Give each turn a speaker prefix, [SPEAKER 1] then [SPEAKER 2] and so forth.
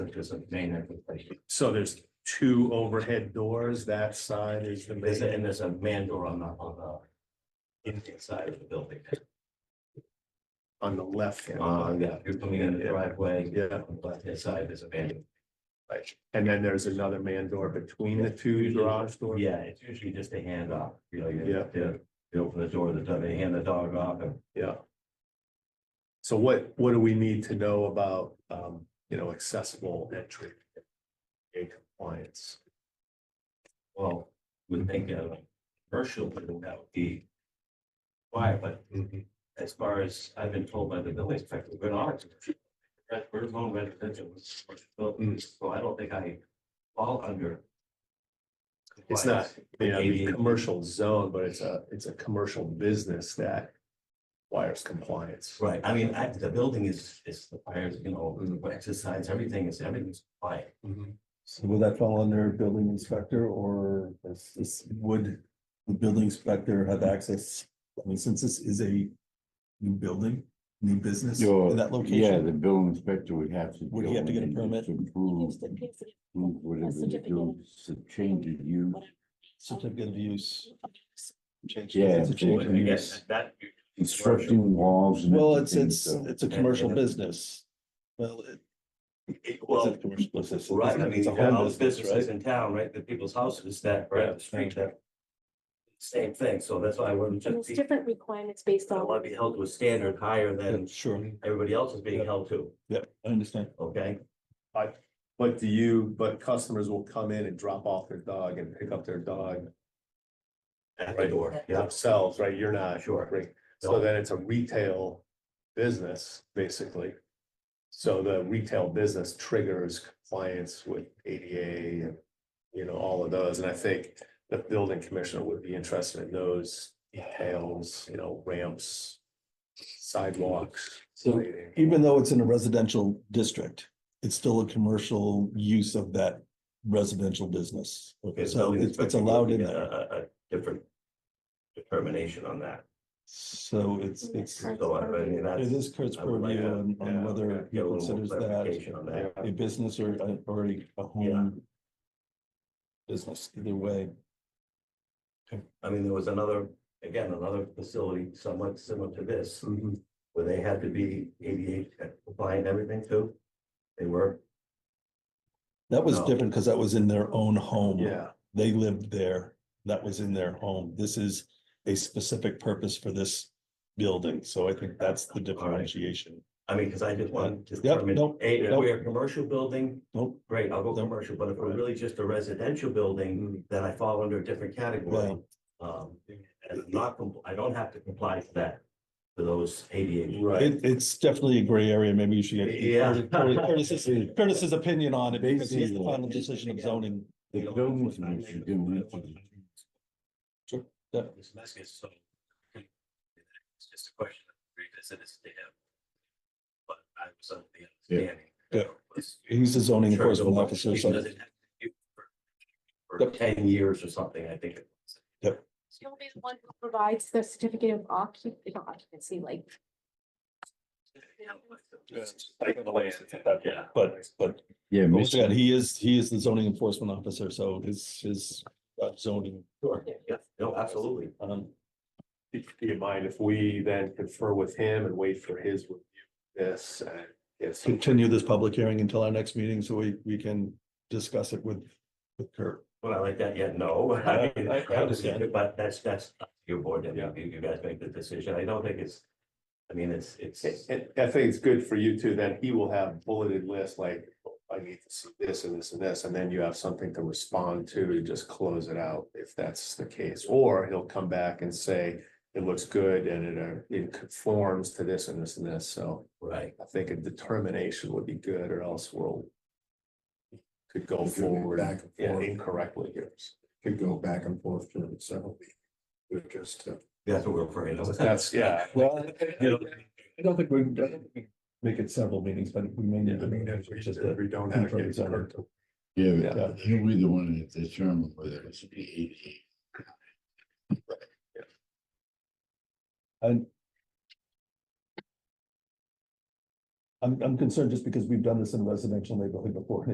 [SPEAKER 1] which is a main entrance.
[SPEAKER 2] So there's two overhead doors, that side is the
[SPEAKER 1] There's, a-
[SPEAKER 2] main.
[SPEAKER 1] and there's a man door on the, on the inside of the building.
[SPEAKER 2] on the left. hand.
[SPEAKER 1] Uh, yeah, if you're coming in the driveway.
[SPEAKER 2] Yeah.
[SPEAKER 1] On the left-hand side, there's a man.
[SPEAKER 2] And then there's another man door between the two garage
[SPEAKER 1] door.
[SPEAKER 2] doors.
[SPEAKER 1] Yeah, it's usually just a handoff, you know, you
[SPEAKER 2] Yeah.
[SPEAKER 1] you- you open the door, the dog, they hand the dog off and
[SPEAKER 2] Yeah. So what, what do we need to know about, um, you know, accessible entry? And compliance,
[SPEAKER 1] Well, would think a commercial, building that would be. Why, but
[SPEAKER 2] Mm-hmm.
[SPEAKER 1] as far as I've been told by the building inspector, we're not. We're home residential, it's commercial
[SPEAKER 2] Mm.
[SPEAKER 1] buildings, so I don't think I fall under.
[SPEAKER 2] It's not-
[SPEAKER 1] compliance.
[SPEAKER 2] yeah, I mean,
[SPEAKER 1] ADA.
[SPEAKER 2] commercial zone, but it's a, it's a commercial business that requires compliance.
[SPEAKER 1] Right, I mean, I, the building is, is the fires, you know, what exercise, everything is, everything's quiet.
[SPEAKER 2] Mm-hmm.
[SPEAKER 3] So will that fall under building inspector or is this, would the building inspector have access? I mean, since this is a new building, new business
[SPEAKER 4] Your-
[SPEAKER 3] in that
[SPEAKER 4] Yeah,
[SPEAKER 3] location,
[SPEAKER 4] the building inspector would have to.
[SPEAKER 3] Would he have to
[SPEAKER 4] go
[SPEAKER 3] get a
[SPEAKER 4] in and
[SPEAKER 3] permit?
[SPEAKER 4] Approve,
[SPEAKER 5] Just in case it-
[SPEAKER 4] approve whatever they
[SPEAKER 5] certificate
[SPEAKER 4] do,
[SPEAKER 5] of-
[SPEAKER 4] so change of use.
[SPEAKER 5] whatever.
[SPEAKER 3] certificate of use. change-
[SPEAKER 4] Yeah,
[SPEAKER 3] it's a change of
[SPEAKER 4] change.
[SPEAKER 3] use.
[SPEAKER 4] Yes.
[SPEAKER 1] That,
[SPEAKER 4] Construction walls. and
[SPEAKER 3] Well, it's,
[SPEAKER 4] everything,
[SPEAKER 3] it's,
[SPEAKER 4] so-
[SPEAKER 3] it's a commercial business. Well, it- it's
[SPEAKER 1] well,
[SPEAKER 3] a commercial business.
[SPEAKER 1] Right, I mean,
[SPEAKER 3] It's
[SPEAKER 1] you
[SPEAKER 3] a
[SPEAKER 1] have all
[SPEAKER 3] home
[SPEAKER 1] those
[SPEAKER 3] business, right?
[SPEAKER 1] businesses in town, right, the people's houses that right up the street that. Same thing, so that's why I wouldn't
[SPEAKER 5] And
[SPEAKER 1] just
[SPEAKER 5] it's
[SPEAKER 1] be, I
[SPEAKER 5] different requirements based
[SPEAKER 1] don't
[SPEAKER 5] on.
[SPEAKER 1] wanna be held to a standard higher
[SPEAKER 3] Yeah,
[SPEAKER 1] than
[SPEAKER 3] Sure,
[SPEAKER 1] everybody else is being held to,
[SPEAKER 3] I understand.
[SPEAKER 1] okay?
[SPEAKER 2] But do you, but customers will come in and drop off their dog and pick up their dog
[SPEAKER 1] At the door, yeah,
[SPEAKER 2] themselves, right? You're not.
[SPEAKER 1] Uh, Sure.
[SPEAKER 2] Right. So
[SPEAKER 1] No.
[SPEAKER 2] then it's a retail business, basically. So the retail business triggers compliance with ADA and, you know, all of those. And I think the building commissioner would be interested in those details, you know, ramps, sidewalks.
[SPEAKER 3] So
[SPEAKER 2] lighting.
[SPEAKER 3] even though it's in a residential district, it's still a commercial use of that residential business.
[SPEAKER 1] Okay, the
[SPEAKER 3] So
[SPEAKER 1] building
[SPEAKER 3] it's, it's
[SPEAKER 1] inspector will
[SPEAKER 3] allowed in
[SPEAKER 1] get a-
[SPEAKER 3] there.
[SPEAKER 1] A, a different determination on that,
[SPEAKER 3] So it's, it's, it
[SPEAKER 1] so I I mean, that's.
[SPEAKER 3] is Kurt's
[SPEAKER 1] I would like
[SPEAKER 3] purview
[SPEAKER 1] to,
[SPEAKER 3] on,
[SPEAKER 1] yeah,
[SPEAKER 3] on whether he
[SPEAKER 1] get a little more
[SPEAKER 3] considers that
[SPEAKER 1] clarification On that,
[SPEAKER 3] a business or, a- or a a home. Business, either way.
[SPEAKER 1] I mean, there was another, again, another facility somewhat similar to this.
[SPEAKER 3] Mm-hmm.
[SPEAKER 1] where they had to be ADA compliant, and everything too. They were,
[SPEAKER 3] That was
[SPEAKER 1] No.
[SPEAKER 3] different because that was in their own home.
[SPEAKER 2] Yeah.
[SPEAKER 3] They lived there. That was in their home. This is a specific purpose for this building. So I think that's the differentiation.
[SPEAKER 1] I mean, because I just wanted to.
[SPEAKER 3] Yep,
[SPEAKER 1] determine,
[SPEAKER 3] nope,
[SPEAKER 1] hey, if
[SPEAKER 3] nope.
[SPEAKER 1] we're a commercial building,
[SPEAKER 3] Nope.
[SPEAKER 1] great, I'll go
[SPEAKER 3] Nope. Mm-hmm.
[SPEAKER 1] commercial, but if we're really just a residential building, then I fall under a different category. Um, and I'm not, compl- I don't have to comply to that, to those ADA.
[SPEAKER 2] Right.
[SPEAKER 3] It, it's definitely a gray area. Maybe you should
[SPEAKER 1] Yeah.
[SPEAKER 3] get Curtis- Curtis's, Curtis's opinion on it because he's the final decision of zoning.
[SPEAKER 4] The building commissioner didn't have to
[SPEAKER 3] Sure, yeah.
[SPEAKER 1] This message, so. It's just a question of revisit this to him. But I was under the
[SPEAKER 4] Yeah.
[SPEAKER 1] understanding.
[SPEAKER 3] Yeah.
[SPEAKER 1] that it was-
[SPEAKER 3] He's the zoning
[SPEAKER 1] Sure,
[SPEAKER 3] enforcement
[SPEAKER 1] go
[SPEAKER 3] officer.
[SPEAKER 1] back.
[SPEAKER 3] so-
[SPEAKER 1] Because it had to be For for ten years or something, I think. it was.
[SPEAKER 5] He'll be the one who provides the certificate of occup- not occupancy, like.
[SPEAKER 1] Yeah.
[SPEAKER 3] But, but
[SPEAKER 4] Yeah,
[SPEAKER 3] don't forget,
[SPEAKER 4] Mr.
[SPEAKER 3] he is, he is the zoning enforcement officer. So his, his uh, zoning.
[SPEAKER 1] Yeah, no, absolutely.
[SPEAKER 3] Um,
[SPEAKER 2] Do you mind if we then confer with him and wait for his review? of This, and if some
[SPEAKER 3] continue this public hearing until our next meeting so we, we can discuss it with, with Kurt.
[SPEAKER 1] Well, I like that, yeah, no.
[SPEAKER 3] I- I- I understand.
[SPEAKER 1] But that's, that's up to your board, and
[SPEAKER 2] Yeah.
[SPEAKER 1] you, you guys make the decision, I don't think it's, I mean, it's, it's,
[SPEAKER 2] And, and I think it's good for you too, then he will have bulleted lists like, I need to see this and this and this, and then you have something to respond to, to just close it out if that's the case. Or he'll come back and say, it looks good and it, uh, it conforms to this and this and this, so
[SPEAKER 1] right,
[SPEAKER 2] I think a determination would be good or else we'll could go
[SPEAKER 6] We're doing it
[SPEAKER 2] forward
[SPEAKER 6] back and
[SPEAKER 2] yeah,
[SPEAKER 6] forth.
[SPEAKER 2] incorrectly here.
[SPEAKER 6] could go back and forth during several meetings. We're just, uh,
[SPEAKER 1] that's what we're afraid of.
[SPEAKER 2] That's, yeah,
[SPEAKER 3] Well,
[SPEAKER 1] You know,
[SPEAKER 3] I don't think we, I don't think we make it several meetings, but we may need
[SPEAKER 6] I
[SPEAKER 3] to
[SPEAKER 6] mean,
[SPEAKER 3] meet
[SPEAKER 6] if we
[SPEAKER 3] just
[SPEAKER 6] if
[SPEAKER 3] a
[SPEAKER 6] we don't have.
[SPEAKER 3] confirm zoning.
[SPEAKER 6] to-
[SPEAKER 4] Yeah,
[SPEAKER 2] yeah.
[SPEAKER 4] but he'll be the one that determine whether it should be ADA.
[SPEAKER 3] And I'm, I'm concerned just because we've done this in a residential neighborhood before,